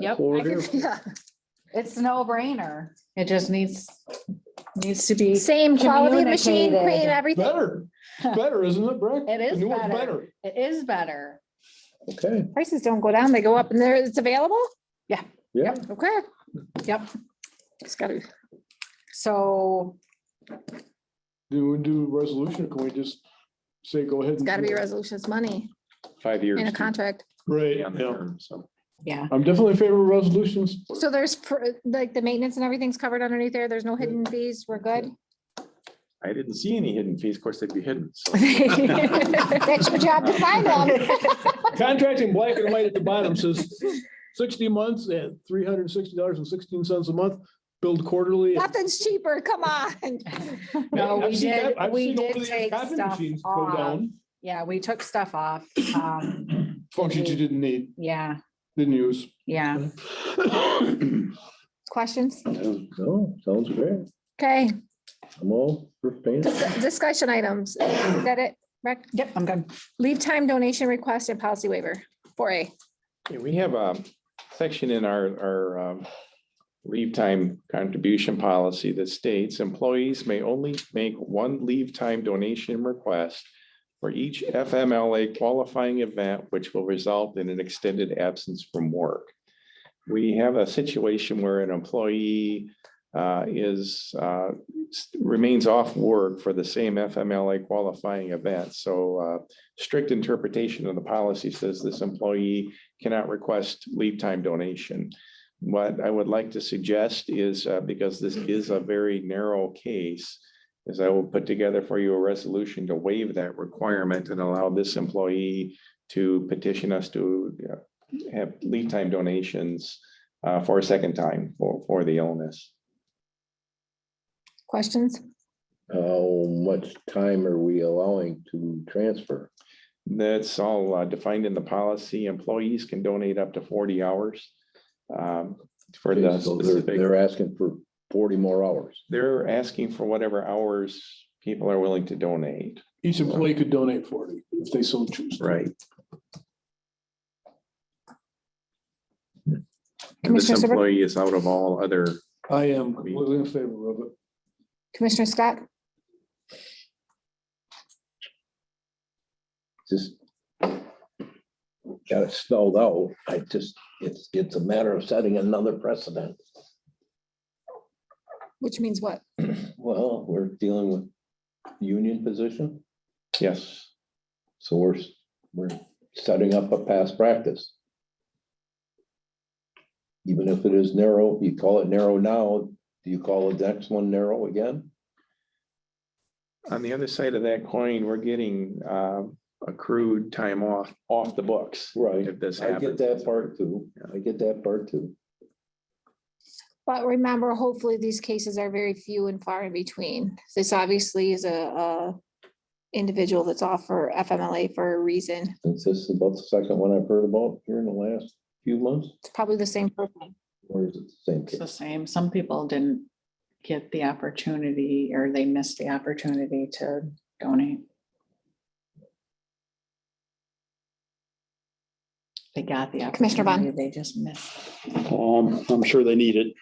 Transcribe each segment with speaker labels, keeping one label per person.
Speaker 1: Yep.
Speaker 2: Or
Speaker 3: I
Speaker 2: do.
Speaker 3: could- Yeah, it's no brainer. It just needs, needs to be,
Speaker 1: Same quality of machine,
Speaker 3: Communicated.
Speaker 1: cream, everything.
Speaker 2: Better, better, isn't it, Brick?
Speaker 3: It is
Speaker 2: The new one's
Speaker 3: better. it is better.
Speaker 2: better. Okay,
Speaker 1: Prices don't go down, they go up and there, it's available?
Speaker 3: Yeah.
Speaker 2: yeah,
Speaker 1: Okay.
Speaker 3: Yep.
Speaker 1: It's gotta, be-
Speaker 3: So,
Speaker 2: do we do a resolution, or can we just say, go ahead?
Speaker 1: it's
Speaker 2: and
Speaker 1: gotta
Speaker 2: do
Speaker 1: be
Speaker 2: it?
Speaker 1: resolutions money
Speaker 4: five years.
Speaker 1: in a
Speaker 4: to
Speaker 1: contract.
Speaker 2: Right,
Speaker 4: be on the
Speaker 2: yeah,
Speaker 4: term, so.
Speaker 3: yeah,
Speaker 2: I'm definitely in favor of resolutions.
Speaker 1: So there's, pr- like, the maintenance and everything's covered underneath there. There's no hidden fees. We're good.
Speaker 4: I didn't see any hidden fees. Of course, they'd be hidden. so.
Speaker 1: That's your job to find them.
Speaker 2: Contract in black and white at the bottom says sixty months at three hundred and sixty dollars and sixteen cents a month, billed quarterly.
Speaker 1: Nothing's cheaper, come on.
Speaker 3: no,
Speaker 2: I've
Speaker 3: we
Speaker 2: seen
Speaker 3: did,
Speaker 2: cop- I've
Speaker 3: we
Speaker 2: seen
Speaker 3: did
Speaker 2: over-the-air
Speaker 3: take
Speaker 2: copy
Speaker 3: stuff
Speaker 2: machines go
Speaker 3: off.
Speaker 2: down,
Speaker 3: Yeah, we took stuff off. Um,
Speaker 2: Functions you didn't need,
Speaker 3: yeah,
Speaker 2: didn't use.
Speaker 3: yeah.
Speaker 1: Questions?
Speaker 2: No, sounds great.
Speaker 1: Okay,
Speaker 2: I'm all for paying.
Speaker 1: dis- discussion items. Is that it? Rec-
Speaker 3: Yep, I'm good.
Speaker 1: Leave time donation request and policy waiver, four A.
Speaker 4: Yeah, we have a section in our, our um, leave time contribution policy that states employees may only make one leave time donation request for each FMLA qualifying event, which will result in an extended absence from work. We have a situation where an employee uh, is, uh, s- remains off work for the same FMLA qualifying event. So uh, strict interpretation of the policy says this employee cannot request leave time donation. What I would like to suggest is, uh, because this
Speaker 5: Hmm.
Speaker 4: is a very narrow case, is I will put together for you a resolution to waive that requirement and allow this employee to petition us to you know, have leave time donations uh, for a second time for, for the illness.
Speaker 1: Questions?
Speaker 5: How much time are we allowing to transfer?
Speaker 4: That's all uh, defined in the policy. Employees can donate up to forty hours um, for the
Speaker 5: So they're,
Speaker 4: specific.
Speaker 5: they're asking for forty more hours.
Speaker 4: They're asking for whatever hours people are willing to donate.
Speaker 2: Each employee could donate forty if they so choose.
Speaker 4: Right. This
Speaker 1: Commissioner Seber-
Speaker 4: employee is out of all other,
Speaker 2: I am completely in favor of it.
Speaker 1: Commissioner Scott?
Speaker 5: Just got it spelled out. I just, it's, it's a matter of setting another precedent.
Speaker 1: Which means what?
Speaker 5: Well, we're dealing with union position,
Speaker 4: yes,
Speaker 5: so we're, we're setting up a past practice. Even if it is narrow, you call it narrow now, do you call the next one narrow again?
Speaker 4: on the other side of that coin, we're getting um, accrued time off, off the books.
Speaker 5: Right.
Speaker 4: If this
Speaker 5: I get
Speaker 4: happens.
Speaker 5: that part too. I get that part too.
Speaker 1: But remember, hopefully these cases are very few and far in between. This obviously is a, a individual that's off for FMLA for a reason.
Speaker 5: Since this is about the second one I've heard about here in the last few months,
Speaker 1: It's probably the same person.
Speaker 5: or is it the same
Speaker 6: It's the
Speaker 5: case?
Speaker 6: same. Some people didn't get the opportunity or they missed the opportunity to donate. They got the
Speaker 1: Commissioner Vaughn.
Speaker 6: opportunity, they just missed.
Speaker 7: Um, I'm sure they need it.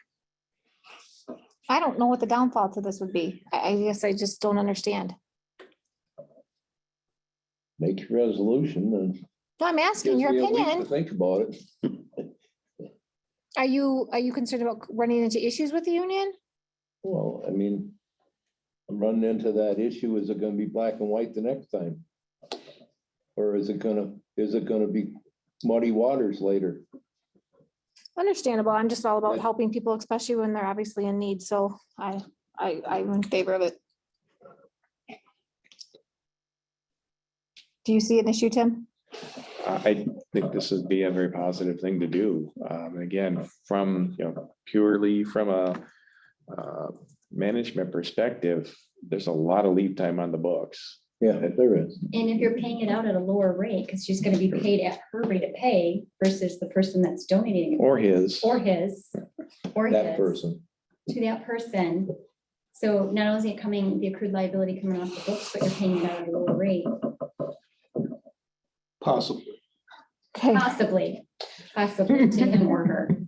Speaker 1: I don't know what the downfall to this would be. I, I guess I just don't understand.
Speaker 5: Make your resolution and.
Speaker 1: No, I'm asking your
Speaker 5: gives me a week to
Speaker 1: opinion.
Speaker 5: Think about it.
Speaker 1: Are you, are you concerned about running into issues with the union?
Speaker 5: Well, I mean, I'm running into that issue. Is it gonna be black and white the next time? Or is it gonna, is it gonna be muddy waters later?
Speaker 1: Understandable. I'm just all about
Speaker 5: Right.
Speaker 1: helping people, especially when they're obviously in need. So I, I, I'm in favor of it. Do you see an issue, Tim?
Speaker 4: I I think this would be a very positive thing to do. Um, again, from, you know, purely from a uh, management perspective, there's a lot of lead time on the books.
Speaker 5: Yeah, if there is.
Speaker 8: And if you're paying it out at a lower rate, because she's gonna be paid at her rate of pay versus the person that's donating it,
Speaker 4: Or his.
Speaker 8: or his, or
Speaker 5: That
Speaker 8: his,
Speaker 5: person.
Speaker 8: to that person. So not only is it coming, the accrued liability coming off the books, but you're paying it out at a lower rate,
Speaker 2: Possibly.
Speaker 1: Okay.
Speaker 8: possibly, possibly to him or her.